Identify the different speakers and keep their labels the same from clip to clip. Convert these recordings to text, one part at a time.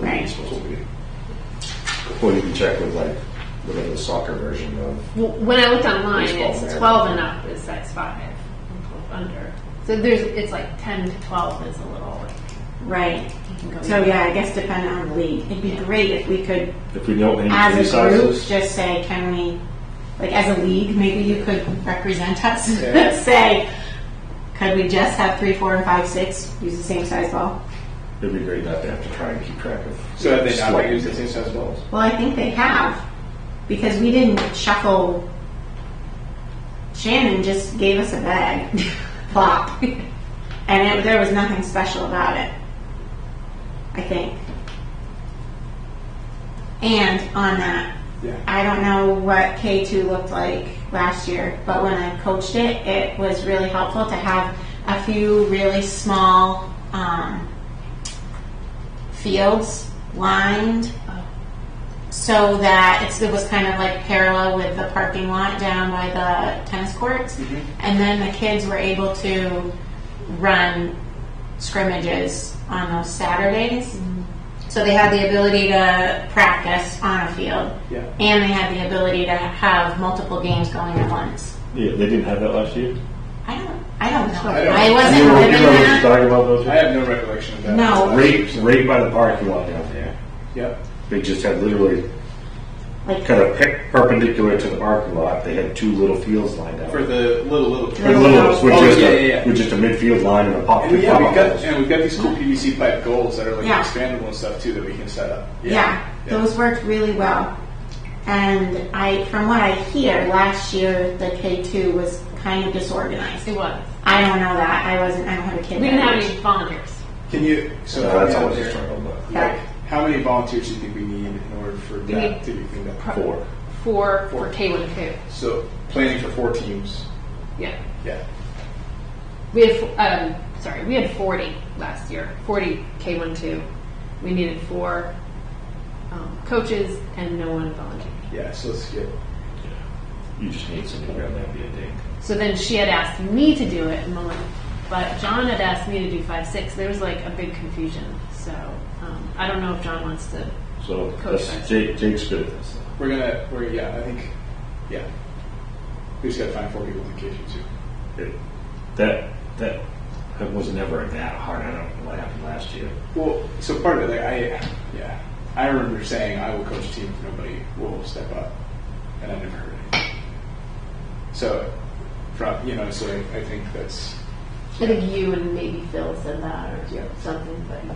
Speaker 1: game's supposed to be. Well, you can check with like, whatever the soccer version of,
Speaker 2: Well, When I looked online,
Speaker 1: Baseball
Speaker 2: it's
Speaker 1: there.
Speaker 2: 12 and up is size 5, and 12 under. So there's, it's like 10 to 12 is a little,
Speaker 3: Right.
Speaker 2: you can go.
Speaker 3: So yeah, I guess depending on the league, it'd be great if we could,
Speaker 1: if we know any of
Speaker 3: as
Speaker 1: these
Speaker 3: a group,
Speaker 1: sizes.
Speaker 3: just say, can we, like as a league, maybe you could represent us.
Speaker 1: Yeah.
Speaker 3: Say, could we just have three, four, and five, six use the same size ball?
Speaker 1: It'd be great not to have to try and keep track of.
Speaker 4: So that they not
Speaker 1: Slight.
Speaker 4: use the same size balls.
Speaker 3: Well, I think they have because we didn't shuffle. Shannon just gave us a bag, plop, and it, there was nothing special about it. I think. And on that,
Speaker 4: Yeah.
Speaker 3: I don't know what K2 looked like last year, but when I coached it, it was really helpful to have a few really small um, fields lined so that it's, it was kind of like parallel with the parking lot down by the tennis courts. And then the kids were able to run scrimmages on those Saturdays. So they had the ability to practice on a field.
Speaker 4: Yeah.
Speaker 3: And they had the ability to have multiple games going at once.
Speaker 5: Yeah, they didn't have that last year.
Speaker 3: I don't, I don't know.
Speaker 4: I don't-
Speaker 3: I, wasn't
Speaker 1: You know, you
Speaker 3: living
Speaker 1: know what you're
Speaker 3: that.
Speaker 1: talking about those?
Speaker 4: I have no recollection of that.
Speaker 3: No.
Speaker 1: Right, right by the parking lot down there.
Speaker 4: Yep.
Speaker 1: They just had literally
Speaker 3: Like-
Speaker 1: kind of pe- perpendicular to the parking lot. They had two little fields lined up.
Speaker 4: For the little little.
Speaker 1: For Littles, with
Speaker 4: Oh,
Speaker 1: just
Speaker 4: yeah,
Speaker 1: a,
Speaker 4: yeah, yeah.
Speaker 1: with just a midfield line and a pop.
Speaker 4: And yeah,
Speaker 1: pop
Speaker 4: we've got
Speaker 1: goals.
Speaker 4: and we've got these cool PVC pipe goals that are like
Speaker 3: Yeah.
Speaker 4: expandable and stuff too that we can set up.
Speaker 3: Yeah, those worked really well. And I, from what I hear, last year the K two was kind of disorganized.
Speaker 2: It was.
Speaker 3: I don't know that. I wasn't. I don't have a kid.
Speaker 2: We didn't
Speaker 3: that
Speaker 2: have
Speaker 3: age.
Speaker 2: any volunteers.
Speaker 4: Can you?
Speaker 1: So
Speaker 4: So
Speaker 1: that's
Speaker 4: help me out
Speaker 1: always a
Speaker 4: there.
Speaker 1: struggle, but
Speaker 3: Yeah.
Speaker 4: Like, how many volunteers do you think we need in order for that
Speaker 2: need
Speaker 4: to be cleaned up?
Speaker 1: four.
Speaker 2: Four for K1 and K.
Speaker 4: So planning for four teams.
Speaker 2: Yeah.
Speaker 4: Yeah.
Speaker 2: We had, um, sorry, we had 40 last year, 40 K1 2. We needed four um, coaches and no one volunteered.
Speaker 4: Yeah. So let's get.
Speaker 1: You just need something around that be a dink.
Speaker 2: So then she had asked me to do it, and I'm like, but John had asked me to do five six. There was like a big confusion. So um, I don't know if John wants to.
Speaker 1: So
Speaker 2: Coach
Speaker 1: that's
Speaker 2: said.
Speaker 1: Jake, Jake's good at this.
Speaker 4: We're gonna. We're yeah. I think. Yeah. We just gotta find four people to cage you too.
Speaker 1: It, that that that was never that hard. I don't know what happened last year.
Speaker 4: Well, so part of it, like I, yeah, I remember saying I will coach a team if nobody will step up, and I never heard it. So, from you know, so I, I think that's
Speaker 2: I think you and maybe Phil said that or
Speaker 4: Yeah.
Speaker 2: something. But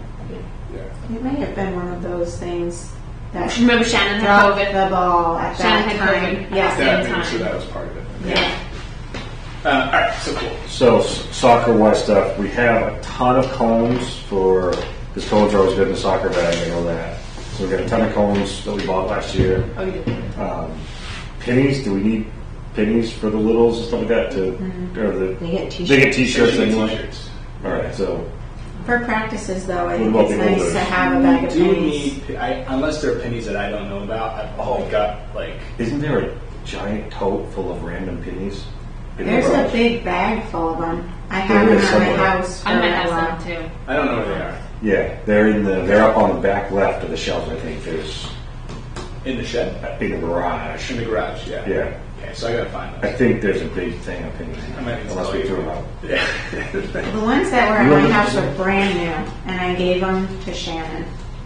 Speaker 4: yeah.
Speaker 3: It may have been one of those things that
Speaker 2: remember Shannon had
Speaker 3: dropped
Speaker 2: COVID.
Speaker 3: the ball at that
Speaker 2: Shannon had
Speaker 3: time.
Speaker 2: COVID.
Speaker 3: Yes.
Speaker 4: That,
Speaker 2: Same
Speaker 4: I mean, so
Speaker 2: time.
Speaker 4: that was part of it.
Speaker 3: Yeah.
Speaker 4: Uh, all right, so cool.
Speaker 1: So soccer wise stuff, we have a ton of cones for because cones are always good in the soccer bag. I know that. So we got a ton of cones that we bought last year.
Speaker 2: Oh, you did.
Speaker 1: Um, pennies? Do we need pennies for the littles and stuff like that? To or the
Speaker 6: They get
Speaker 1: they
Speaker 6: t-shirts.
Speaker 1: get t-shirts
Speaker 4: T-shirts.
Speaker 1: anyway. All right, so
Speaker 3: For practices, though, I
Speaker 1: What
Speaker 3: think
Speaker 1: about
Speaker 3: it's
Speaker 1: the
Speaker 3: nice
Speaker 1: older?
Speaker 3: to have a bag of
Speaker 4: Do
Speaker 3: pennies.
Speaker 4: need I, unless there are pennies that I don't know about? I've all got like
Speaker 1: isn't there a giant tote full of random pennies? In the
Speaker 3: There's a
Speaker 1: garage?
Speaker 3: big bag full of them. I
Speaker 1: There
Speaker 3: have them
Speaker 1: is
Speaker 3: at my
Speaker 1: somewhere.
Speaker 3: house. For
Speaker 2: I might
Speaker 3: a
Speaker 2: have
Speaker 3: while.
Speaker 2: some too.
Speaker 4: I don't know where they are
Speaker 1: Yeah, they're in the they're up on the back left of the shelf. I think there's
Speaker 4: in the shed
Speaker 1: in the garage.
Speaker 4: in the garage. Yeah.
Speaker 1: Yeah,
Speaker 4: Okay, so I gotta find
Speaker 1: I
Speaker 4: them.
Speaker 1: think there's a big thing up in
Speaker 4: I might need to
Speaker 1: unless
Speaker 4: tell
Speaker 1: we
Speaker 4: you.
Speaker 1: threw it out.
Speaker 4: Yeah.
Speaker 3: The ones that
Speaker 1: You
Speaker 3: were at my
Speaker 1: remember-
Speaker 3: house were brand new, and I gave them to Shannon.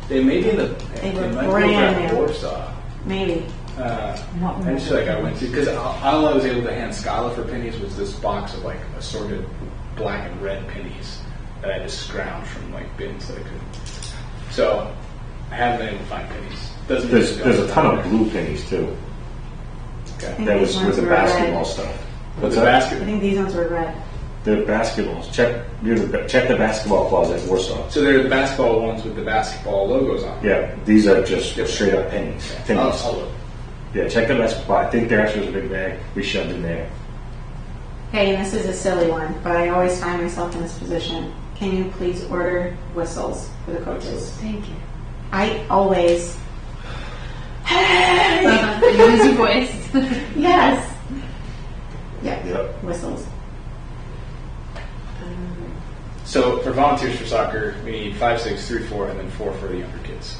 Speaker 4: they may be in the.
Speaker 3: They were
Speaker 4: might be
Speaker 3: brand
Speaker 4: over at
Speaker 3: new.
Speaker 4: Warsaw.
Speaker 3: Maybe.
Speaker 4: Uh,
Speaker 6: Not
Speaker 4: I just feel like I went to because all I was able to hand Scala for pennies was this box of like assorted black and red pennies that I just scrounged from like bins that I could. So I haven't been able to find pennies. Doesn't mean
Speaker 1: There's
Speaker 4: they
Speaker 1: there's a
Speaker 4: don't.
Speaker 1: ton of blue pennies too.
Speaker 4: Okay.
Speaker 3: think
Speaker 1: That
Speaker 3: these
Speaker 1: was
Speaker 3: ones
Speaker 1: with the
Speaker 3: were red.
Speaker 1: basketball stuff.
Speaker 4: But
Speaker 1: What's
Speaker 4: the
Speaker 1: that?
Speaker 3: I
Speaker 4: basket.
Speaker 3: think these ones were red.
Speaker 1: The basketballs. Check near the ba- check the basketball closet in Warsaw.
Speaker 4: So they're the basketball ones with the basketball logos on. them.
Speaker 1: Yeah, these are just straight up pennies.
Speaker 4: I'll,
Speaker 1: Pennies.
Speaker 4: I'll look.
Speaker 1: Yeah, check the basketball. I think there actually was a big bag we shoved in there.
Speaker 3: Hey, and this is a silly one, but I always find myself in this position. Can you please order whistles for the coaches?
Speaker 2: Thank you.
Speaker 3: I always.
Speaker 2: Uh, you lose your voice.
Speaker 3: Yes. Yeah.
Speaker 1: Yep.
Speaker 3: Whistles.
Speaker 4: So for volunteers for soccer, we need five, six, three, four, and then four for the younger kids.